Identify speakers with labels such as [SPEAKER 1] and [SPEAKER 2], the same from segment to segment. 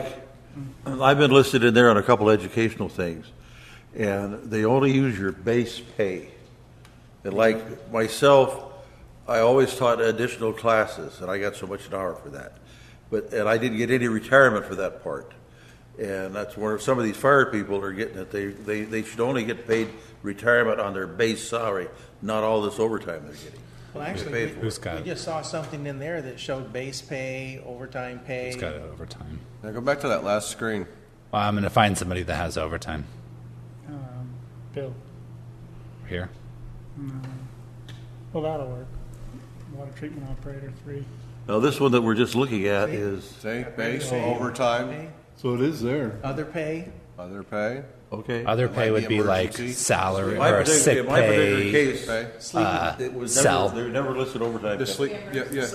[SPEAKER 1] Like, I've been listed in there on a couple educational things, and they only use your base pay. And like myself, I always taught additional classes, and I got so much an hour for that. But, and I didn't get any retirement for that part. And that's where some of these fire people are getting it. They, they, they should only get paid retirement on their base salary, not all this overtime they're getting.
[SPEAKER 2] Well,
[SPEAKER 1] paid
[SPEAKER 2] actually,
[SPEAKER 1] for
[SPEAKER 2] we,
[SPEAKER 1] it.
[SPEAKER 2] we
[SPEAKER 3] Who's got it?
[SPEAKER 2] just saw something in there that showed base pay, overtime pay.
[SPEAKER 3] It's got overtime.
[SPEAKER 4] Now go back to that last screen.
[SPEAKER 3] Well, I'm going to find somebody that has overtime
[SPEAKER 5] Um, Bill.
[SPEAKER 3] here.
[SPEAKER 5] Well, that'll work. Water treatment operator three.
[SPEAKER 1] Now, this one that we're just looking at is,
[SPEAKER 4] See, base, overtime,
[SPEAKER 2] Pay,
[SPEAKER 6] So it is there.
[SPEAKER 2] Other pay,
[SPEAKER 4] other pay,
[SPEAKER 1] okay.
[SPEAKER 3] Other pay
[SPEAKER 4] might
[SPEAKER 3] would
[SPEAKER 4] be
[SPEAKER 3] be like
[SPEAKER 4] emergency.
[SPEAKER 3] salary
[SPEAKER 1] My
[SPEAKER 3] or
[SPEAKER 1] particular-
[SPEAKER 3] sick
[SPEAKER 1] my particular
[SPEAKER 3] pay. uh,
[SPEAKER 1] case,
[SPEAKER 4] pay.
[SPEAKER 1] sleeping, it was
[SPEAKER 3] cell.
[SPEAKER 1] never, they were never listed overtime.
[SPEAKER 4] The
[SPEAKER 1] pay.
[SPEAKER 4] sleep, yeah, yeah. the-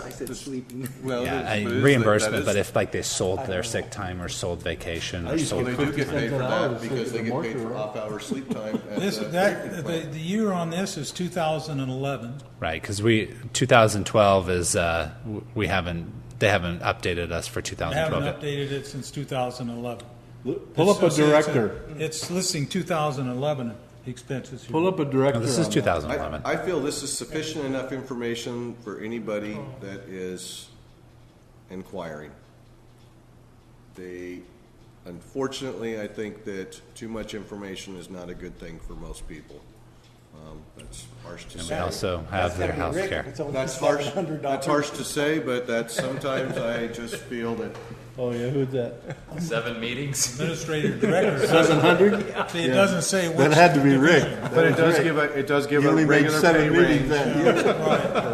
[SPEAKER 4] Well, it
[SPEAKER 3] Yeah,
[SPEAKER 4] is, but it
[SPEAKER 3] I-
[SPEAKER 4] is sleep. That
[SPEAKER 3] reimbursement, but
[SPEAKER 4] is-
[SPEAKER 3] if like they sold their sick time or sold vacation or
[SPEAKER 6] used to
[SPEAKER 4] Well,
[SPEAKER 3] sold,
[SPEAKER 4] they do get paid for that
[SPEAKER 6] $50
[SPEAKER 4] because they get paid
[SPEAKER 6] mortuary.
[SPEAKER 4] for off-hour sleep time at
[SPEAKER 7] This,
[SPEAKER 4] the
[SPEAKER 7] that,
[SPEAKER 4] treatment
[SPEAKER 7] the,
[SPEAKER 4] plant.
[SPEAKER 7] the year on this is 2011.
[SPEAKER 3] right, because we, 2012 is, uh, w- we haven't, they haven't updated us for
[SPEAKER 7] I haven't
[SPEAKER 3] 2012.
[SPEAKER 7] updated it since 2011.
[SPEAKER 6] Pull up a
[SPEAKER 7] It's- it's-
[SPEAKER 6] director.
[SPEAKER 7] It's listing 2011 expenses here.
[SPEAKER 6] Pull up a director.
[SPEAKER 3] No, this is
[SPEAKER 6] on that.
[SPEAKER 3] 2011.
[SPEAKER 4] I, I feel this is sufficient enough information for anybody that is inquiring. They, unfortunately, I think that too much information is not a good thing for most people. Um, That's harsh to
[SPEAKER 3] We
[SPEAKER 4] say.
[SPEAKER 3] also have their
[SPEAKER 2] Rick,
[SPEAKER 3] health care.
[SPEAKER 2] It's only
[SPEAKER 4] That's harsh,
[SPEAKER 2] $700.
[SPEAKER 4] that's harsh to say, but that's sometimes I just feel that
[SPEAKER 6] Oh, yeah, who's that?
[SPEAKER 8] Seven meetings.
[SPEAKER 7] Administrative director.
[SPEAKER 6] Seven hundred?
[SPEAKER 7] See, It doesn't say which.
[SPEAKER 6] That had to be Rick.
[SPEAKER 4] But it does give a, it does give
[SPEAKER 6] He
[SPEAKER 4] a
[SPEAKER 6] only made
[SPEAKER 4] regular pay
[SPEAKER 6] seven meetings
[SPEAKER 4] range.
[SPEAKER 6] that year.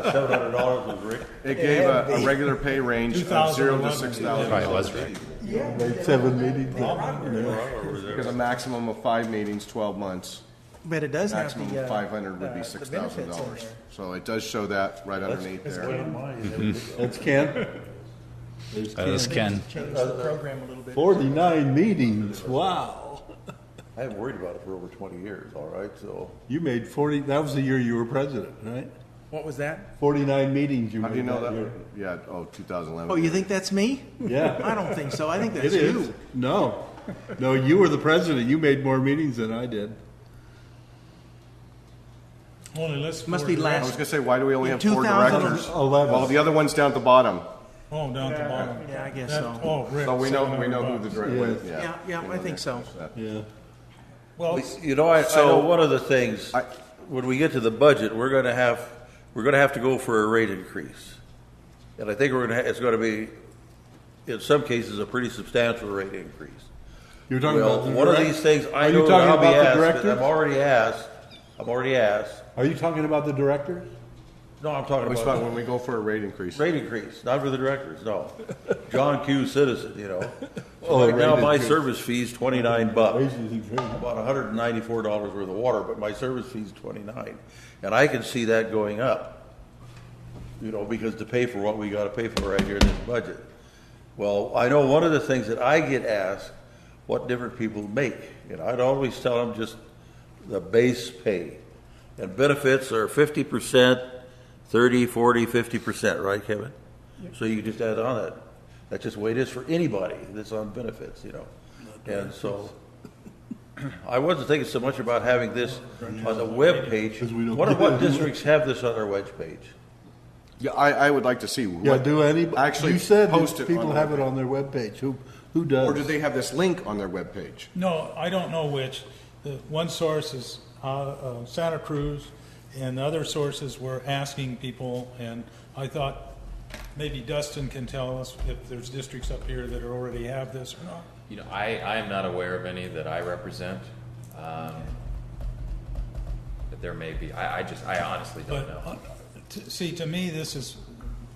[SPEAKER 1] Seven hundred dollars was Rick.
[SPEAKER 4] It gave a, a regular pay range of zero to
[SPEAKER 7] 2011.
[SPEAKER 4] six thousand.
[SPEAKER 3] Probably was right.
[SPEAKER 6] Made seven meetings that year.
[SPEAKER 4] Because a maximum of five meetings, twelve months,
[SPEAKER 2] But it does have
[SPEAKER 4] maximum
[SPEAKER 2] the,
[SPEAKER 4] of
[SPEAKER 2] uh,
[SPEAKER 4] five
[SPEAKER 2] uh,
[SPEAKER 4] hundred would be
[SPEAKER 2] the
[SPEAKER 4] six thousand
[SPEAKER 2] benefits in
[SPEAKER 4] dollars.
[SPEAKER 2] there.
[SPEAKER 4] So it does show that right underneath there.
[SPEAKER 6] That's Ken. There's
[SPEAKER 3] That is
[SPEAKER 6] Ken.
[SPEAKER 3] Uh, Ken.
[SPEAKER 2] Change the program a little bit.
[SPEAKER 6] Forty-nine meetings, wow.
[SPEAKER 1] I haven't worried about it for over twenty years, all right, so.
[SPEAKER 6] You made forty, that was the year you were president, right?
[SPEAKER 2] What was that?
[SPEAKER 6] Forty-nine meetings you
[SPEAKER 4] How do you
[SPEAKER 6] made
[SPEAKER 4] know
[SPEAKER 6] that
[SPEAKER 4] that?
[SPEAKER 6] year.
[SPEAKER 4] Yeah, oh, two thousand eleven.
[SPEAKER 2] Oh, you think that's me?
[SPEAKER 6] Yeah,
[SPEAKER 2] I don't think so. I think
[SPEAKER 6] it
[SPEAKER 2] that's
[SPEAKER 6] is.
[SPEAKER 2] you.
[SPEAKER 6] No, no, you were the president. You made more meetings than I did.
[SPEAKER 7] Only lists.
[SPEAKER 2] Must
[SPEAKER 7] four
[SPEAKER 2] be
[SPEAKER 4] I
[SPEAKER 2] last-
[SPEAKER 4] was gonna say, why do we only
[SPEAKER 2] In
[SPEAKER 4] have four
[SPEAKER 2] 2000
[SPEAKER 4] directors?
[SPEAKER 6] Eleven.
[SPEAKER 4] Well, the other one's down at the bottom,
[SPEAKER 7] directors. Oh, down at the bottom.
[SPEAKER 2] Yeah, I guess
[SPEAKER 7] That-
[SPEAKER 2] so.
[SPEAKER 7] Oh, Rick.
[SPEAKER 4] so we know, we
[SPEAKER 7] $700.
[SPEAKER 4] know who the director is,
[SPEAKER 2] Yeah,
[SPEAKER 4] yeah.
[SPEAKER 2] yeah, I think so.
[SPEAKER 6] Yeah.
[SPEAKER 7] Well,
[SPEAKER 1] You know, I, I know
[SPEAKER 4] So-
[SPEAKER 1] one of the things,
[SPEAKER 4] I-
[SPEAKER 1] when we get to the budget, we're gonna have, we're gonna have to go for a rate increase. And I think we're gonna, ha- it's gonna be, in some cases, a pretty substantial rate increase.
[SPEAKER 6] You're talking
[SPEAKER 1] Well,
[SPEAKER 6] about the
[SPEAKER 1] one of
[SPEAKER 6] direct-
[SPEAKER 1] these things, I
[SPEAKER 6] Are you
[SPEAKER 1] know that
[SPEAKER 6] talking
[SPEAKER 1] I'll be
[SPEAKER 6] about the
[SPEAKER 1] asked,
[SPEAKER 6] director?
[SPEAKER 1] and I'm already asked, I'm already asked,
[SPEAKER 6] Are you talking about the director?
[SPEAKER 1] no, I'm talking
[SPEAKER 4] We
[SPEAKER 1] about
[SPEAKER 4] spent, when we go for a rate increase.
[SPEAKER 1] Rate increase, not for the directors, no. John Q. Citizen, you know.
[SPEAKER 6] Oh,
[SPEAKER 1] Right now,
[SPEAKER 6] rate
[SPEAKER 1] my
[SPEAKER 6] increase.
[SPEAKER 1] service fee's twenty-nine bucks,
[SPEAKER 6] Raises and trim.
[SPEAKER 1] about hundred and ninety-four dollars worth of water, but my service fee's twenty-nine. And I can see that going up, you know, because to pay for what we gotta pay for right here in this budget. Well, I know one of the things that I get asked, what different people make, and I'd always tell them just the base pay. And benefits are fifty percent, thirty, forty, fifty percent, right, Kevin? So you just add on that. That's just the way it is for anybody that's on benefits, you know? And so, I wasn't thinking so much about having this on the web page.
[SPEAKER 6] we don't-
[SPEAKER 1] What, what districts have this on their web page?
[SPEAKER 4] Yeah, I, I would like to see
[SPEAKER 6] Yeah,
[SPEAKER 4] what,
[SPEAKER 6] do any,
[SPEAKER 4] actually
[SPEAKER 6] you said
[SPEAKER 4] post it
[SPEAKER 6] that people
[SPEAKER 4] on
[SPEAKER 6] have
[SPEAKER 4] the
[SPEAKER 6] it on their webpage. Who, who does?
[SPEAKER 4] or do they have this link on their webpage?
[SPEAKER 7] No, I don't know which. The one source is uh, uh, Santa Cruz, and the other sources were asking people, and I thought maybe Dustin can tell us if there's districts up here that are already have this or not.
[SPEAKER 8] You know, I, I am not aware of any that I represent. Um, but there may be. I, I just, I honestly don't
[SPEAKER 7] But,
[SPEAKER 8] know.
[SPEAKER 7] uh, t- see, to me, this is,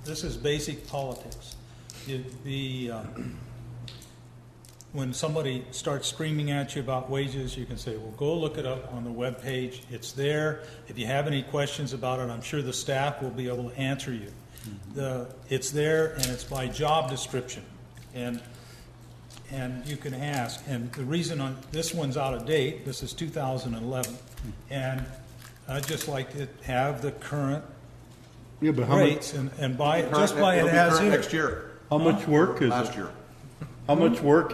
[SPEAKER 7] this is basic politics. You- The, uh, when somebody starts screaming at you about wages, you can say, well, go look it up on the webpage, it's there. If you have any questions about it, I'm sure the staff will be able to answer you.
[SPEAKER 8] Mm-hmm.
[SPEAKER 7] The, it's there, and it's by job description. And and you can ask, and the reason on, this one's out of date, this is 2011, and I'd just like to have the current
[SPEAKER 6] Yeah, but how much,
[SPEAKER 7] rates and, and by,
[SPEAKER 4] Current-
[SPEAKER 7] just by it
[SPEAKER 4] it'll be
[SPEAKER 7] as
[SPEAKER 4] current
[SPEAKER 7] is.
[SPEAKER 4] Next year,
[SPEAKER 6] how much work is
[SPEAKER 4] last
[SPEAKER 6] it?
[SPEAKER 4] year.
[SPEAKER 6] How much work